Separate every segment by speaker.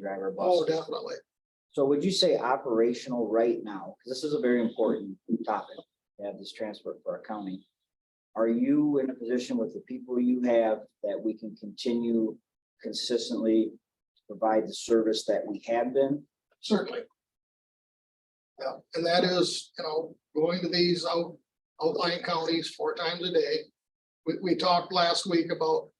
Speaker 1: drive our
Speaker 2: Oh,
Speaker 1: buses.
Speaker 2: definitely.
Speaker 1: So would you say operational right now, because this is a very important topic, to have this transport for our county. Are you in a position with the people you have that we can continue consistently to provide the service that we had been?
Speaker 2: Certainly. Yeah, and that is, you know, going to these out, outlying counties four times a day. We, we talked last week about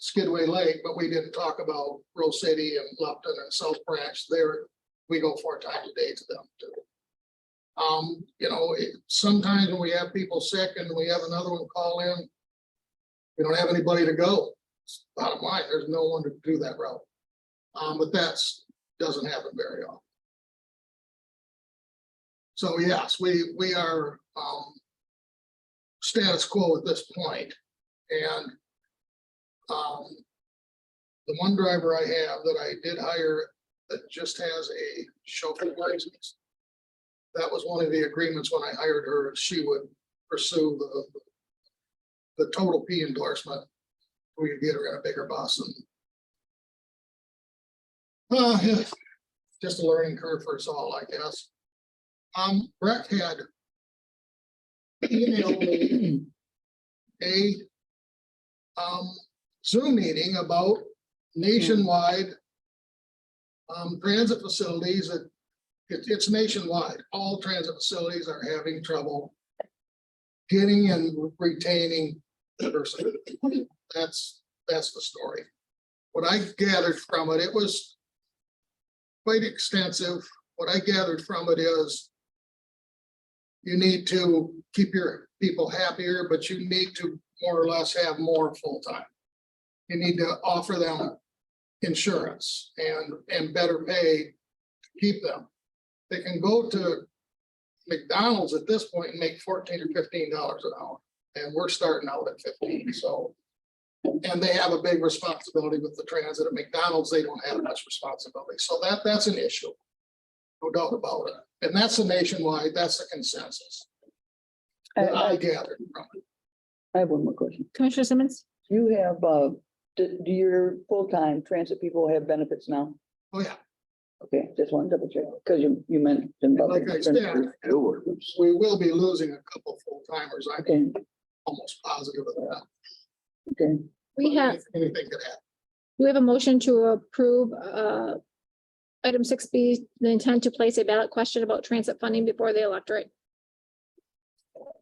Speaker 2: Skidway Lake, but we didn't talk about Rose City and Lupton and South Branch there. We go four times a day to them too. Um, you know, it- sometimes when we have people sick and we have another one call in, we don't have anybody to go. Bottom line, there's no one to do that route. Um, but that's, doesn't happen very often. So yes, we, we are, um, status quo at this point, and, um, the one driver I have that I did hire that just has a chauffeur license. That was one of the agreements when I hired her, she would pursue the, the total P endorsement. We could get her in a bigger bus and uh, yeah, just a learning curve for us all, I guess. Um, Brett had emailed me a um, Zoom meeting about nationwide um, transit facilities that it- it's nationwide. All transit facilities are having trouble getting and retaining person. That's, that's the story. What I gathered from it, it was quite extensive. What I gathered from it is you need to keep your people happier, but you need to more or less have more full-time. You need to offer them insurance and, and better pay to keep them. They can go to McDonald's at this point and make fourteen or fifteen dollars an hour, and we're starting out at fifteen, so. And they have a big responsibility with the transit at McDonald's. They don't have much responsibility. So that, that's an issue. No doubt about it. And that's the nationwide, that's the consensus that
Speaker 3: I,
Speaker 2: I
Speaker 3: I-
Speaker 2: gathered from it.
Speaker 3: I have one more question.
Speaker 4: Commissioner Simmons?
Speaker 3: You have, uh, do, do your full-time transit people have benefits now?
Speaker 2: Oh, yeah.
Speaker 3: Okay, just one double check, because you, you mentioned. about
Speaker 2: Like I said,
Speaker 3: the-
Speaker 2: we will be losing a couple full timers. I'm
Speaker 3: Okay,
Speaker 2: almost positive of that.
Speaker 3: okay.
Speaker 4: We
Speaker 2: But
Speaker 4: have,
Speaker 2: Anything could happen.
Speaker 4: we have a motion to approve uh, item six B, the intent to place a ballot question about transit funding before the electorate.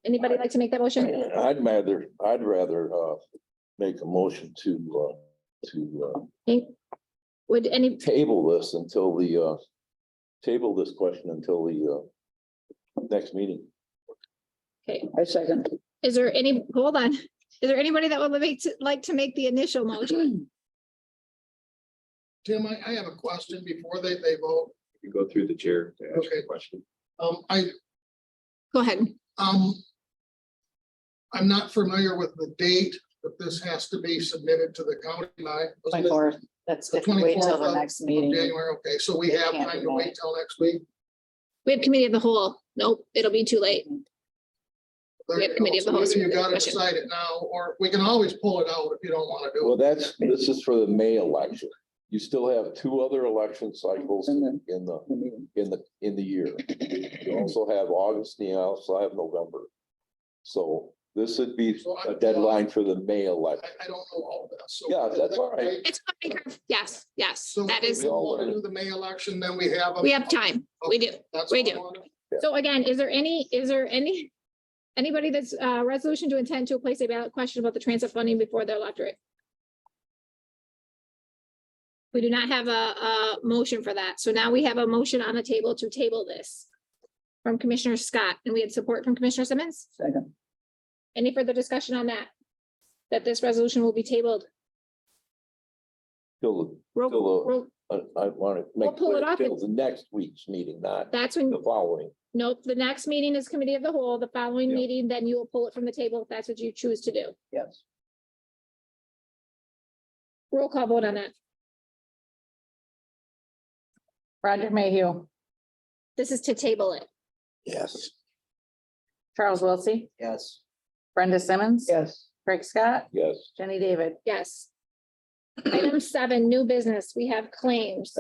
Speaker 4: Anybody like to make that motion?
Speaker 5: I'd rather, I'd rather uh make a motion to uh, to uh
Speaker 4: Would any,
Speaker 5: table this until the uh. Table this question until the uh next meeting.
Speaker 3: I second.
Speaker 4: is there any, hold on, is there anybody that would like to, like to make the initial motion?
Speaker 2: Tim, I, I have a question before they, they vote.
Speaker 6: You go through the chair to ask
Speaker 2: Okay.
Speaker 6: a question.
Speaker 2: Um, I,
Speaker 4: Go ahead.
Speaker 2: um, I'm not familiar with the date that this has to be submitted to the county by.
Speaker 7: Twenty-fourth, that's
Speaker 2: The
Speaker 7: if we wait till
Speaker 2: 24th
Speaker 7: the
Speaker 2: of-
Speaker 7: next
Speaker 2: Of
Speaker 7: meeting.
Speaker 2: January, okay, so we have
Speaker 7: Can't
Speaker 2: time
Speaker 7: do
Speaker 2: to wait
Speaker 7: that.
Speaker 2: till next week.
Speaker 4: We have committee of the whole. Nope, it'll be too late.
Speaker 2: There
Speaker 4: We have
Speaker 2: you go.
Speaker 4: committee of the
Speaker 2: So
Speaker 4: whole,
Speaker 2: either
Speaker 4: so
Speaker 2: You
Speaker 4: we have
Speaker 2: gotta
Speaker 4: discussion.
Speaker 2: decide it now, or we can always pull it out if you don't wanna do
Speaker 5: Well,
Speaker 2: it.
Speaker 5: that's, this is for the May election. You still have two other election cycles
Speaker 3: And then-
Speaker 5: in the,
Speaker 3: the meeting.
Speaker 5: in the, in the year. You also have August, and you also have November. So this would be a deadline for the May election.
Speaker 2: I, I don't know all of this. so-
Speaker 5: Yeah, that's all right.
Speaker 4: It's, yes, yes,
Speaker 2: So
Speaker 4: that
Speaker 2: if
Speaker 4: is,
Speaker 2: We all wanna do the May election, then we have. a-
Speaker 4: we have time. We do.
Speaker 2: That's
Speaker 4: we
Speaker 2: all I
Speaker 4: do.
Speaker 2: wanna-
Speaker 4: So again, is there any, is there any, anybody that's, uh, resolution to intend to place a ballot question about the transit funding before the electorate? We do not have a, a motion for that. So now we have a motion on the table to table this from Commissioner Scott, and we had support from Commissioner Simmons.
Speaker 3: Second.
Speaker 4: Any further discussion on that? That this resolution will be tabled?
Speaker 5: Till,
Speaker 4: Roll-
Speaker 5: till,
Speaker 4: roll-
Speaker 5: the- I, I want to make
Speaker 4: pull it
Speaker 5: clear,
Speaker 4: off
Speaker 5: till
Speaker 4: and-
Speaker 5: the next week's meeting, not
Speaker 4: That's when,
Speaker 5: the following.
Speaker 4: nope, the next meeting is committee of the whole, the following
Speaker 5: Yeah.
Speaker 4: meeting, then you will pull it from the table if that's what you choose to do.
Speaker 3: Yes.
Speaker 4: Roll call vote on that.
Speaker 7: Roger Mayhew,
Speaker 4: This is to table it.
Speaker 5: Yes.
Speaker 7: Charles Wiltie,
Speaker 1: Yes.
Speaker 7: Brenda Simmons.
Speaker 3: Yes.
Speaker 7: Craig Scott,
Speaker 5: Yes.
Speaker 7: Jenny David.
Speaker 4: Yes. Item seven, new business. We have claims.